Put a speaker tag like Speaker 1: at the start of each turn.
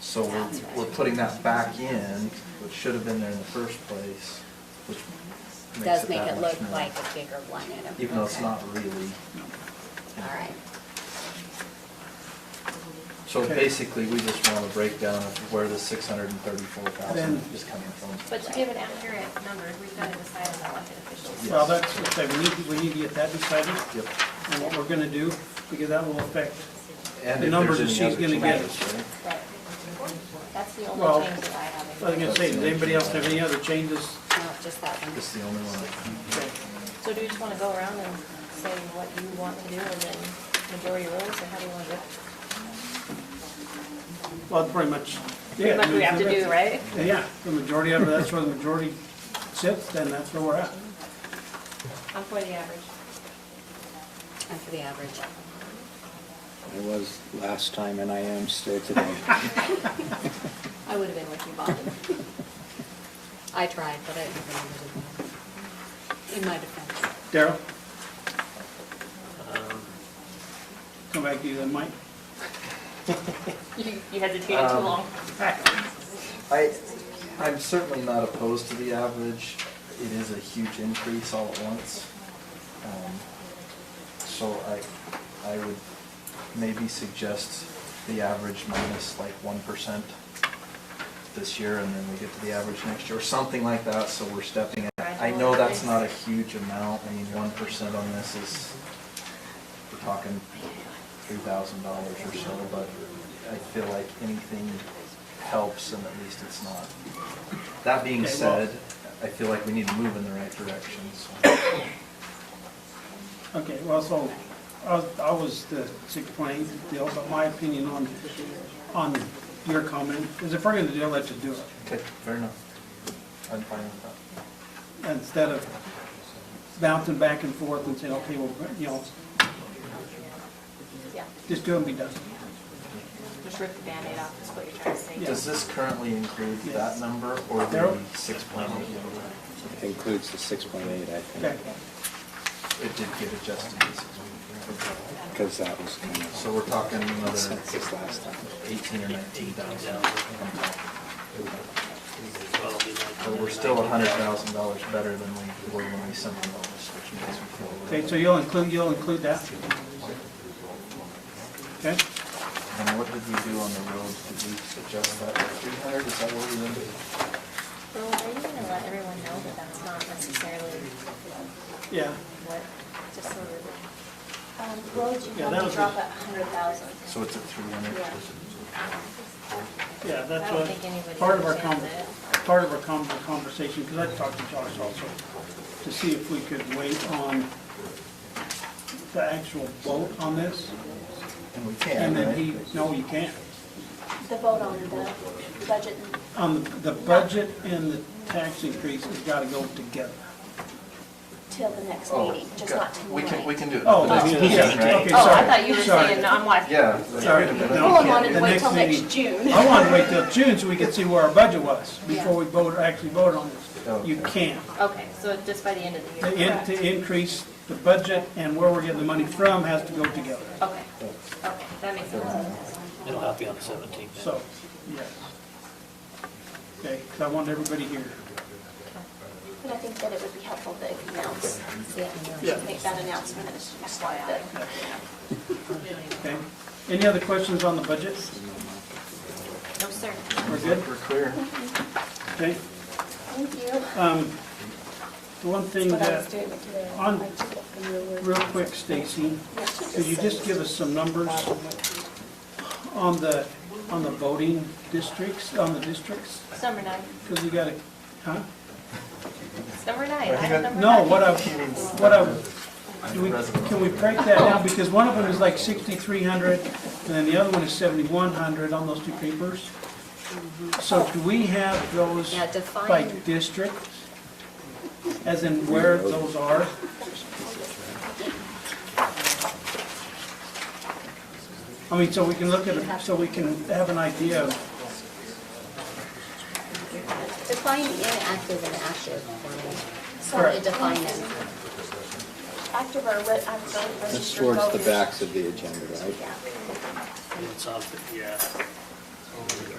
Speaker 1: So we're, we're putting that back in, which should have been there in the first place, which makes
Speaker 2: Does
Speaker 1: it
Speaker 2: make
Speaker 1: that
Speaker 2: it
Speaker 1: much
Speaker 2: look
Speaker 1: more.
Speaker 2: like a bigger one item.
Speaker 1: Even though it's
Speaker 2: Okay.
Speaker 1: not really.
Speaker 2: All right.
Speaker 1: So
Speaker 3: Okay.
Speaker 1: basically, we just want a breakdown of where the six hundred and thirty-four thousand
Speaker 3: Then-
Speaker 1: is coming from.
Speaker 4: But to give an accurate number, we've got to decide as elected officials.
Speaker 3: Well, that's, okay, we need, we need to get that decided,
Speaker 1: Yep.
Speaker 3: and what we're gonna do, because that will affect,
Speaker 1: And
Speaker 3: The
Speaker 1: if
Speaker 3: number
Speaker 1: there's
Speaker 3: that
Speaker 1: any
Speaker 3: she's
Speaker 1: other
Speaker 3: gonna
Speaker 1: changes,
Speaker 3: get us.
Speaker 1: right?
Speaker 2: Right. That's the
Speaker 3: Well,
Speaker 2: only change that I
Speaker 3: I
Speaker 2: have.
Speaker 3: was
Speaker 2: in
Speaker 3: gonna say, does anybody else have any other changes?
Speaker 2: No, just that one.
Speaker 1: It's the only one.
Speaker 3: Okay.
Speaker 4: So do you just want to go around and say what you want to do and then majority rules, or how do you want to do it?
Speaker 3: Well, pretty much.
Speaker 4: Pretty much we have to do, right?
Speaker 3: Yeah, the majority of it, that's where the majority sits, then that's where we're at.
Speaker 4: I'm for the average.
Speaker 2: And for the average.
Speaker 5: I was last time and I am still today.
Speaker 2: I would have been with you, Bob. I tried, but I didn't remember to. In my defense.
Speaker 3: Daryl? Come back to you then, Mike.
Speaker 4: You you hesitated too
Speaker 1: Um,
Speaker 4: long.
Speaker 1: I, I'm certainly not opposed to the average. It is a huge increase all at once. Um, So I, I would maybe suggest the average minus like one percent this year, and then we get to the average next year, or something like that, so we're stepping it. I know that's not a huge amount, I mean, one percent on this is, we're talking three thousand dollars or so, but I feel like anything helps, and at least it's not. That being
Speaker 3: Okay, well-
Speaker 1: said, I feel like we need to move in the right direction, so.
Speaker 3: Okay, well, so, I was- I was the six point eight deal, but my opinion on, on your comment is if we're gonna do it, let's just do it.
Speaker 1: Okay, fair enough. I'm fine with that.
Speaker 3: instead of bouncing back and forth and saying, okay, well, you know,
Speaker 4: Yeah,
Speaker 3: just do it and be done.
Speaker 4: just rip the Band-Aid off, is what you're trying to say.
Speaker 3: Yeah.
Speaker 1: Does this currently include
Speaker 3: Yes.
Speaker 1: that number or the
Speaker 3: Daryl?
Speaker 1: six point eight?
Speaker 5: It Includes the six point eight, I
Speaker 3: Okay,
Speaker 5: think,
Speaker 1: It did get adjusted. to 6.8.
Speaker 5: because that was kind
Speaker 1: So
Speaker 5: of
Speaker 1: we're talking another
Speaker 5: consensus last time.
Speaker 1: eighteen or nineteen thousand. But we're still a hundred thousand dollars better than we were when we sent the notice, which makes me feel. a
Speaker 3: Okay.
Speaker 1: little-
Speaker 3: so you'll include, you'll include that? Okay,
Speaker 1: And what did we do on the roads? Did we adjust that to three hundred? Is that what we did?
Speaker 4: Well, are you going to let everyone know that that's not necessarily
Speaker 3: yeah,
Speaker 4: what, just so we're.
Speaker 2: Um, roads, you
Speaker 3: Yeah, that
Speaker 2: have
Speaker 3: was
Speaker 2: to drop
Speaker 3: a-
Speaker 2: a hundred thousand.
Speaker 1: So it's at three hundred?
Speaker 2: Yeah.
Speaker 3: yeah,
Speaker 4: I
Speaker 3: that's
Speaker 4: don't
Speaker 3: what,
Speaker 4: think anybody
Speaker 3: part of our con,
Speaker 4: understands
Speaker 3: part of our con, conversation, because I talked to Josh also, to see if we could wait on the actual vote on this,
Speaker 1: And we can,
Speaker 3: and then
Speaker 1: right?
Speaker 3: he, no, you can't.
Speaker 2: The vote on the budget and
Speaker 3: On the, the budget and the tax increase has got to go together.
Speaker 2: till the next
Speaker 1: Oh,
Speaker 2: meeting, just
Speaker 1: okay.
Speaker 2: not
Speaker 1: We can, we
Speaker 2: tonight.
Speaker 1: can do it.
Speaker 3: Oh,
Speaker 1: That's
Speaker 3: yeah,
Speaker 1: easy,
Speaker 3: yeah,
Speaker 1: right?
Speaker 3: okay,
Speaker 4: Oh,
Speaker 3: sorry.
Speaker 4: I thought you were
Speaker 3: sorry.
Speaker 4: saying, no, I'm like,
Speaker 1: Yeah.
Speaker 3: Sorry.
Speaker 1: wait a minute.
Speaker 3: No.
Speaker 2: Hold on, and
Speaker 3: The
Speaker 2: wait
Speaker 3: next
Speaker 2: till next
Speaker 3: meeting.
Speaker 2: June.
Speaker 3: I wanted to wait till June so we could see where our budget was before we vote, actually vote on this. You
Speaker 1: Okay.
Speaker 3: can't.
Speaker 4: okay, so just by the end of the
Speaker 3: To,
Speaker 4: year.
Speaker 3: in- to increase the budget and where we're getting the money from has to go together.
Speaker 4: Okay, okay, that makes sense.
Speaker 6: It'll have to be on the seventeenth.
Speaker 3: So, yes. Okay, 'cause I want everybody here.
Speaker 7: But I think that it would be helpful to announce,
Speaker 3: Yeah.
Speaker 7: make that announcement as as part of the
Speaker 3: Okay? Any other questions on the budget?
Speaker 4: No, sir.
Speaker 3: We're good?
Speaker 1: We're clear.
Speaker 3: Okay?
Speaker 7: Thank you.
Speaker 3: Um, the one thing
Speaker 7: What I was
Speaker 3: that,
Speaker 7: doing with you.
Speaker 3: on-
Speaker 7: I took it from your word.
Speaker 3: real quick, Stacy,
Speaker 7: Yeah, she
Speaker 3: could you
Speaker 7: said-
Speaker 3: just give us some numbers on the, on the voting districts, on the districts?
Speaker 4: It's number nine.
Speaker 3: Because you got to, huh?
Speaker 4: It's number nine. I have number
Speaker 3: No,
Speaker 4: nine.
Speaker 3: what I, what I, do we, can we break that down? Because one of them is like sixty-three hundred, and then the other one is seventy-one hundred on those two papers. So do we have those
Speaker 2: Yeah,
Speaker 3: by
Speaker 2: define-
Speaker 3: district? As in where those are? I mean, so we can look at, it, so we can have an idea of,
Speaker 2: Define inactive and active for me.
Speaker 3: Correct.
Speaker 2: Sorry, define them.
Speaker 7: After our, re- I'm going to
Speaker 5: That's
Speaker 7: register
Speaker 5: towards the
Speaker 7: voters.
Speaker 5: backs of the agenda, right?
Speaker 7: Yeah.
Speaker 6: It's on, yeah.